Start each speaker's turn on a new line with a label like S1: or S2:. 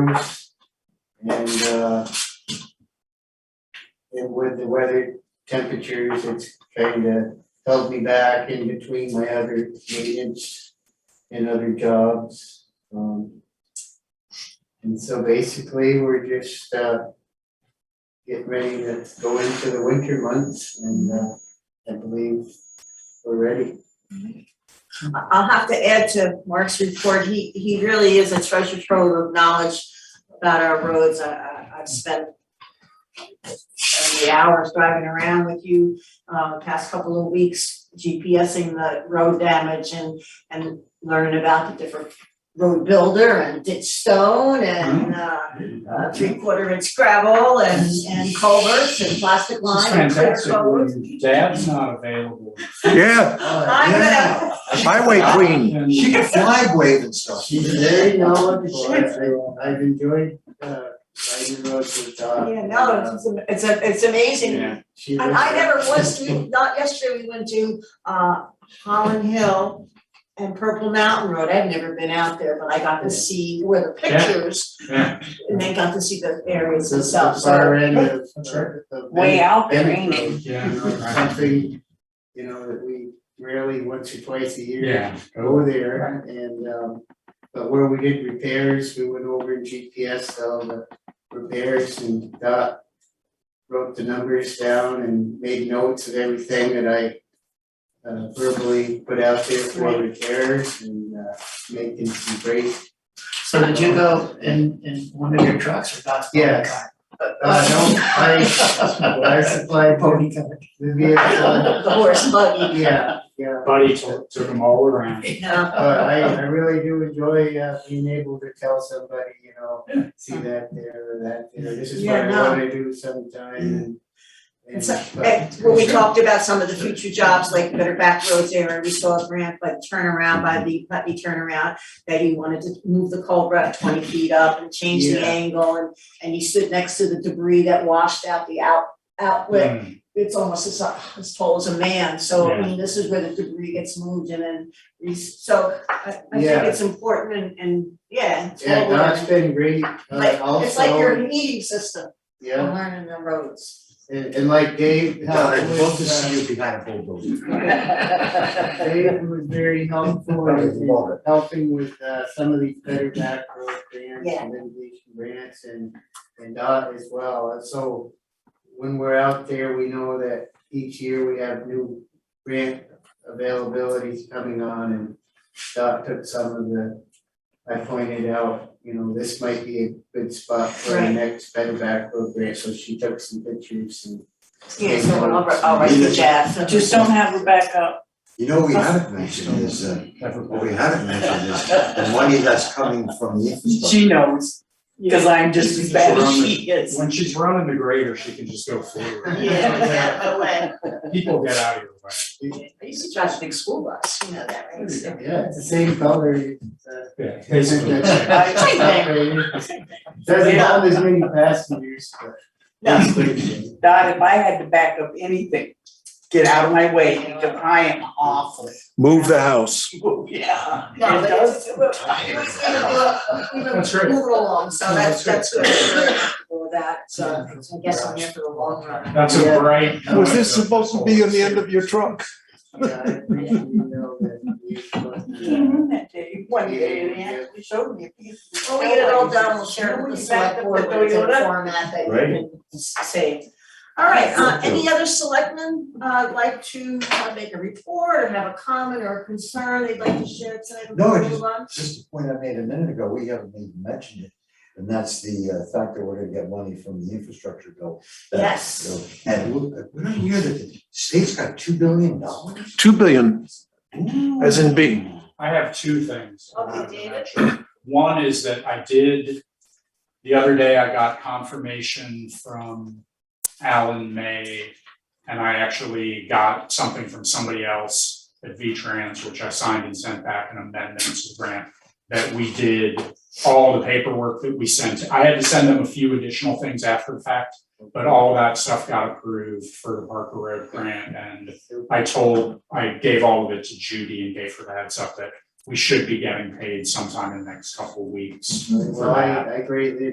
S1: roofs and, uh, and with the weather temperatures, it's kind of held me back in between my other maintenance and other jobs. Um, and so basically, we're just, uh, getting ready to go into the winter months and, uh, I believe we're ready.
S2: I- I'll have to add to Mark's report, he, he really is a treasure trove of knowledge about our roads, I, I, I've spent the hours driving around with you, uh, past couple of weeks, GPSing the road damage and, and learning about the different road builder and ditch stone and, uh, uh, three quarter inch gravel and, and culverts and plastic
S3: It's
S2: line and clear
S3: fantastic
S2: coats.
S3: when dad's not available.
S4: Oh,
S5: Yeah,
S2: I'm gonna,
S5: highway queen.
S3: And-
S6: She can fly wave and stuff.
S1: She's very knowledgeable, I, I've enjoyed, uh, riding the road with Dot.
S2: yeah, no, it's, it's, a- it's amazing
S3: Yeah.
S1: She
S2: And
S1: lives
S2: I
S1: there.
S2: never was, we, not yesterday, we went to uh Holland Hill and Purple Mountain Road, I've never been out there, but I got to see where the
S3: Yeah.
S2: pictures.
S3: Yeah.
S2: And they got to see the areas
S1: This is
S2: itself,
S1: the
S2: so.
S1: Far end of,
S3: That's right.
S1: of the.
S7: Way out there,
S1: Bennett
S7: ain't it?
S1: Road,
S3: Yeah,
S1: you know, it's
S3: right.
S1: something, you know, that we rarely once or twice a year
S3: Yeah.
S1: go there and, um, but where we did repairs, we went over and GPS all the repairs and got wrote the numbers down and made notes of everything that I uh, verbally put out there for repairs and, uh, making some great
S6: So did you go in, in one of your trucks or that's?
S1: Yes. Uh, no, I, I supply
S6: Pony covered.
S1: the vehicle,
S2: The horse buggy,
S1: yeah, yeah,
S3: Buddy took, took them all around.
S2: uh,
S1: but I, I really do enjoy, uh, being able to tell somebody, you know, see that there, or that there, this is what
S2: Yeah,
S1: I
S2: no.
S1: wanna do sometime, and. and,
S2: It's
S1: but-
S2: and when we talked about some of the future jobs, like better back roads area, we saw a grant, but turnaround by the Putney turnaround. That he wanted to move the culvert twenty feet up and change the
S1: Yeah.
S2: angle and and he stood next to the debris that washed out the out outlet.
S3: Mm,
S2: it's almost as, uh, as tall as a man, so I
S3: Yeah.
S2: mean, this is where the debris gets moved and then, re- so I, I think
S1: Yeah.
S2: it's important and, and, yeah, it's
S1: Yeah,
S2: all
S1: no, it's
S2: learning.
S1: been great, uh,
S2: Like, it's like your
S1: also,
S2: heating system, for
S1: yeah,
S2: learning the roads.
S1: and, and like Dave, uh,
S6: God,
S1: helped
S6: I'd love to
S1: with,
S6: see you behind a bulldozer.
S1: uh, Dave was very helpful in
S6: Love it.
S1: helping with uh some of these better back road grants
S2: Yeah.
S1: and mitigation grants and and dot as well, and so when we're out there, we know that each year we have new grant availabilities coming on and dot took some of the I pointed out, you know, this might be a good spot for the
S2: Right.
S1: next better back road grant, so she took some pictures and
S2: Yeah, so I'll, write- I'll write to Jeff.
S7: I Just don't have her back up.
S4: You know, we haven't mentioned is, uh,
S3: never
S4: what
S3: mind.
S4: we haven't mentioned is the money that's coming from the infrastructure.
S7: She knows, cause I'm just as bad as she is.
S3: When she's running the grader, she can just go forward.
S2: Yeah, yeah, okay.
S3: People get out of your way.
S2: I used to drive a big school bus, you know that, right? So-
S1: yeah, it's the same color, it's uh
S3: Yeah, basically.
S2: Same thing.
S1: Doesn't have as many passengers, but.
S7: No,
S1: it's pretty good.
S7: Dot, if I had to back up anything, get out of my way, because I am awful.
S5: Move the house.
S7: Yeah.
S2: No, but it's, we- we-
S7: tired.
S2: we, we, we,
S3: That's right.
S2: move it along, so
S3: No,
S2: that's, that's
S3: that's
S2: good for all that, so I guess I'm here for the long run.
S3: That's a bright.
S5: Was this supposed to be on the end of your truck?
S1: Yeah, I appreciate you know that you-
S7: Came in that day, one day, and he actually showed me. a piece of-
S2: When we get it all done, we'll share it with the select board, but it's in a format that you can s- save. All right, uh, any other selectmen, uh, like to uh, make a report or have a comment or a concern they'd like to share tonight before
S4: No,
S2: we
S4: just-
S2: move on?
S4: Just a point I made a minute ago, we haven't even mentioned it, and that's the uh, fact that we're gonna get money from the infrastructure bill. That-
S2: Yes.
S4: you know, And we- we're not here that the state's got two billion dollars?
S5: Two billion, as in B.
S3: I have two things. I
S2: Okay,
S3: wanted to
S2: David.
S3: mention. One is that I did, the other day I got confirmation from Alan May. And I actually got something from somebody else at V-Trans, which I signed and sent back an amendment to the grant. That we did all the paperwork that we sent. I had to send them a few additional things after the fact. But all that stuff got approved for the Parker Road grant and I told, I gave all of it to Judy and gave her the heads up that we should be getting paid sometime in the next couple of weeks.
S1: Well, I I greatly